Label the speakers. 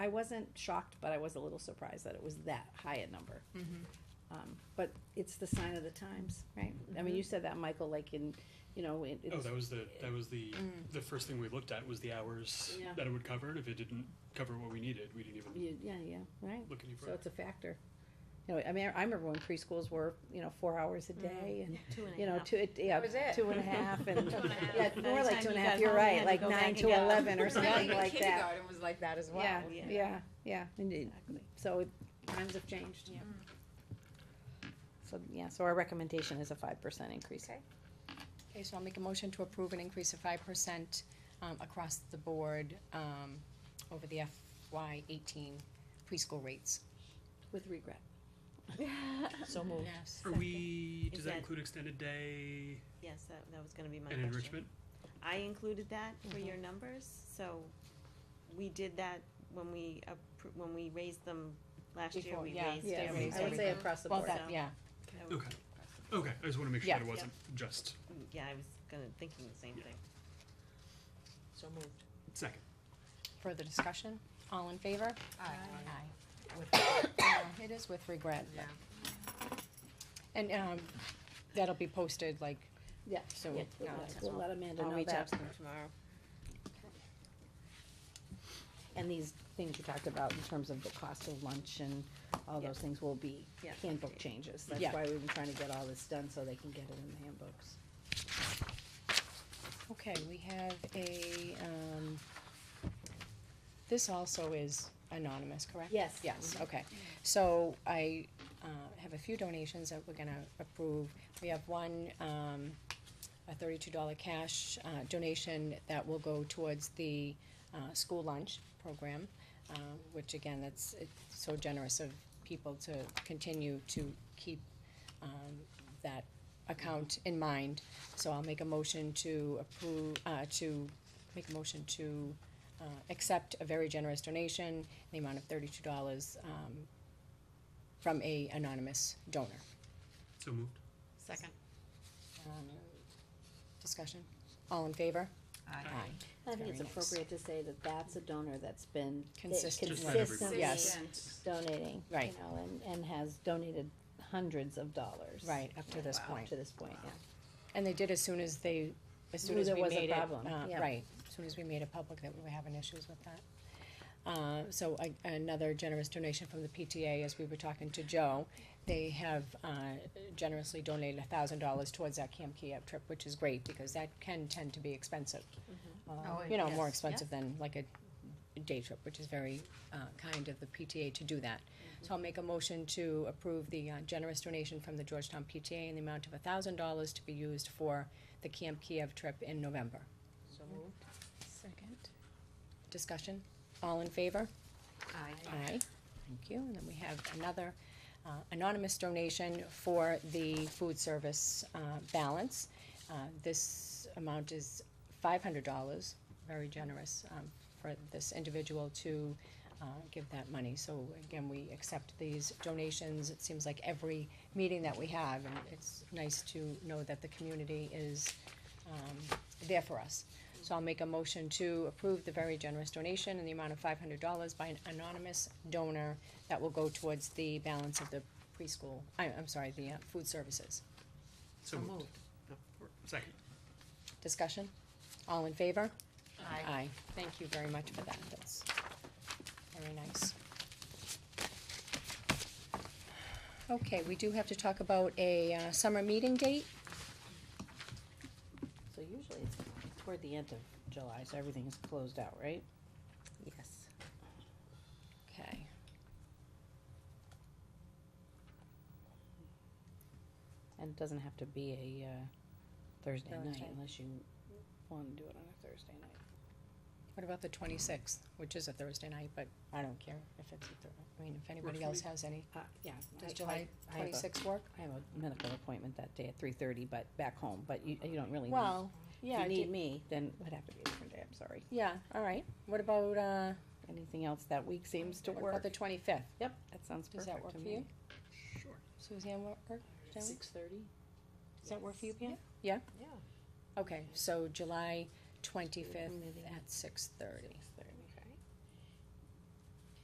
Speaker 1: I wasn't shocked, but I was a little surprised that it was that high a number.
Speaker 2: Mm-hmm.
Speaker 1: Um, but it's the sign of the times, right? I mean, you
Speaker 3: Mm-hmm.
Speaker 1: said that, Michael, like in, you know, it,
Speaker 4: Oh,
Speaker 1: it's,
Speaker 4: that was the, that was the, the first thing we looked at was the hours
Speaker 1: Yeah.
Speaker 4: that it would cover. and If it didn't cover what we needed, we didn't even
Speaker 1: you- yeah, yeah, right?
Speaker 4: look any
Speaker 1: So
Speaker 4: further.
Speaker 1: it's a factor. You know, I mean, I remember when preschools were, you know, four hours
Speaker 3: Mm-hmm.
Speaker 1: a day and,
Speaker 3: Two and a
Speaker 1: you know,
Speaker 3: half.
Speaker 1: two, it- yeah,
Speaker 5: That was it.
Speaker 1: two and a half and.
Speaker 3: Two and a half.
Speaker 1: Yeah,
Speaker 3: By the
Speaker 1: more like
Speaker 3: time
Speaker 1: two and a
Speaker 3: you
Speaker 1: half,
Speaker 3: got
Speaker 1: you're
Speaker 3: home, you had
Speaker 1: right,
Speaker 3: to
Speaker 1: like
Speaker 3: go back
Speaker 1: nine
Speaker 3: and
Speaker 1: to
Speaker 3: get up.
Speaker 1: eleven or
Speaker 5: Really,
Speaker 1: something
Speaker 5: even
Speaker 1: like that.
Speaker 5: Kindergarten was like that as well.
Speaker 1: Yeah,
Speaker 3: Yeah.
Speaker 1: yeah, yeah, indeed. So it- times have changed.
Speaker 3: Yep.
Speaker 1: So, yeah, so our recommendation is a five percent increase.
Speaker 5: Okay.
Speaker 2: Okay, so I'll make a motion to approve an increase of five percent, um, across the board, um, over the FY eighteen preschool rates.
Speaker 1: With regret.
Speaker 3: So
Speaker 2: Yes.
Speaker 4: Are we, does
Speaker 3: Is
Speaker 4: that
Speaker 3: that-
Speaker 4: include extended day
Speaker 3: Yes, that, that was gonna be my
Speaker 4: and
Speaker 3: question.
Speaker 4: enrichment?
Speaker 3: I included that for your
Speaker 1: Mm-hmm.
Speaker 3: numbers, so we did that when we, appro- when we raised them last year,
Speaker 2: Before,
Speaker 3: we
Speaker 2: yeah,
Speaker 3: raised
Speaker 1: Yeah,
Speaker 2: they
Speaker 3: every.
Speaker 2: raised
Speaker 1: I would say
Speaker 2: everything.
Speaker 1: across the
Speaker 2: Well,
Speaker 1: board.
Speaker 2: that, yeah,
Speaker 3: I would-
Speaker 4: Okay, okay, I just wanna make sure
Speaker 2: Yeah.
Speaker 4: that it wasn't just
Speaker 3: Yeah, I was gonna, thinking the same thing.
Speaker 5: So moved.
Speaker 4: second.
Speaker 2: further discussion, all in favor? Aye. With, yeah, it is with regret, but-
Speaker 5: Yeah.
Speaker 2: and, um, that'll be posted, like,
Speaker 1: Yeah,
Speaker 2: So,
Speaker 1: yeah, we'll
Speaker 2: yeah,
Speaker 1: let-
Speaker 2: that's
Speaker 1: we'll
Speaker 2: all.
Speaker 1: let Amanda
Speaker 3: I'll
Speaker 1: know
Speaker 3: reach out
Speaker 1: that.
Speaker 3: to them tomorrow.
Speaker 1: And these things you talked about in terms of the cost of lunch and all
Speaker 3: Yeah.
Speaker 1: those things will be
Speaker 3: Yeah.
Speaker 1: handbook changes. That's
Speaker 2: Yeah.
Speaker 1: why we've been trying to get all this done so they can get it in the handbooks.
Speaker 2: Okay, we have a, um, this also is anonymous, correct?
Speaker 1: Yes.
Speaker 2: Yes, okay. So I, uh, have a few donations that we're gonna approve. We have one, um, a thirty-two dollar cash, uh, donation that will go towards the, uh, school lunch program, uh, which again, that's, it's so generous of people to continue to keep, um, that account in mind. So I'll make a motion to approve, uh, to, make a motion to, uh, accept a very generous donation in the amount of thirty-two dollars, um, from a anonymous donor.
Speaker 4: So moved.
Speaker 5: Second.
Speaker 2: Um, Discussion? All in favor? Aye.
Speaker 1: I think it's
Speaker 2: Very nice.
Speaker 1: appropriate to say that that's a donor that's been eh,
Speaker 2: Consistent.
Speaker 4: Just not every
Speaker 1: consistently
Speaker 2: Yes.
Speaker 1: donating, you
Speaker 2: Right.
Speaker 1: know, and, and has donated hundreds of dollars.
Speaker 2: Right, up to this
Speaker 1: Up
Speaker 2: point.
Speaker 1: to this point, yeah.
Speaker 2: And they did as soon as they, as soon
Speaker 1: Knew
Speaker 2: as
Speaker 1: there
Speaker 2: we
Speaker 1: was a
Speaker 2: made it,
Speaker 1: problem,
Speaker 2: uh,
Speaker 1: yeah.
Speaker 2: right, as soon as we made it public that we were having issues with that. Uh, so a- another generous donation from the PTA, as we were talking to Joe, they have, uh, generously donated a thousand dollars towards that Camp Kiev trip, which is great, because that can tend to be expensive.
Speaker 1: Um,
Speaker 2: Uh,
Speaker 5: Oh,
Speaker 2: you know, more
Speaker 5: yes,
Speaker 2: expensive than like a day trip, which is very, uh, kind of the PTA to do that. So I'll make a motion to approve the uh, generous donation from the Georgetown PTA in the amount of thousand dollars to be used for the Camp Kiev trip in November.
Speaker 5: So moved.
Speaker 2: Second. Discussion? All in favor?
Speaker 5: Aye.
Speaker 2: Aye. Thank you. And then we have another uh, anonymous donation for the food service uh, balance. Uh, This amount is five hundred dollars, very generous um, for this individual to uh, give that money. So again, we accept these donations. It seems like every meeting that we have, and it's nice to know that the community is um, there for us. So I'll make a motion to approve the very generous donation in the amount of five hundred dollars by an anonymous donor that will go towards the balance of the preschool, I, I'm sorry, the uh, food services.
Speaker 4: So moved. Second.
Speaker 2: Discussion? All in favor?
Speaker 5: Aye.
Speaker 2: Aye. Thank you very much for that. That's very nice. Okay, we do have to talk about a uh, summer meeting date.
Speaker 1: So usually it's toward the end of July, so everything is closed out, right?
Speaker 5: Yes.
Speaker 2: Okay.
Speaker 1: And it doesn't have to be a, uh, Thursday night
Speaker 2: Thursday.
Speaker 1: unless you wanna do it on a Thursday night.
Speaker 2: What about the twenty-sixth, which is a Thursday night, but I don't care if it's, a Thur- I mean, if anybody
Speaker 4: for
Speaker 2: else
Speaker 4: me.
Speaker 2: has any.
Speaker 1: Uh, yeah. I-
Speaker 2: Does
Speaker 1: I-
Speaker 2: July
Speaker 1: I have a-
Speaker 2: twenty-sixth work?
Speaker 1: I have a medical appointment that day at three thirty, but back home, but you, you don't really need.
Speaker 2: Well,
Speaker 1: If
Speaker 2: yeah,
Speaker 1: you
Speaker 2: I
Speaker 1: need
Speaker 2: did-
Speaker 1: me, then it would have to be a different day, I'm sorry.
Speaker 2: yeah, all right. What about, uh,
Speaker 1: Anything else that week seems to
Speaker 2: what about
Speaker 1: work.
Speaker 2: the twenty-fifth?
Speaker 1: Yep, that sounds
Speaker 2: Does that
Speaker 1: perfect
Speaker 2: work
Speaker 1: to
Speaker 2: for
Speaker 1: me.
Speaker 2: you?
Speaker 4: Sure.
Speaker 2: Suzanne, work, work? Does that work?
Speaker 1: thirty?
Speaker 2: Does that work for you, Pam? Yeah?
Speaker 5: Yeah.
Speaker 2: Okay, so July twenty-fifth at six thirty.
Speaker 1: Six thirty.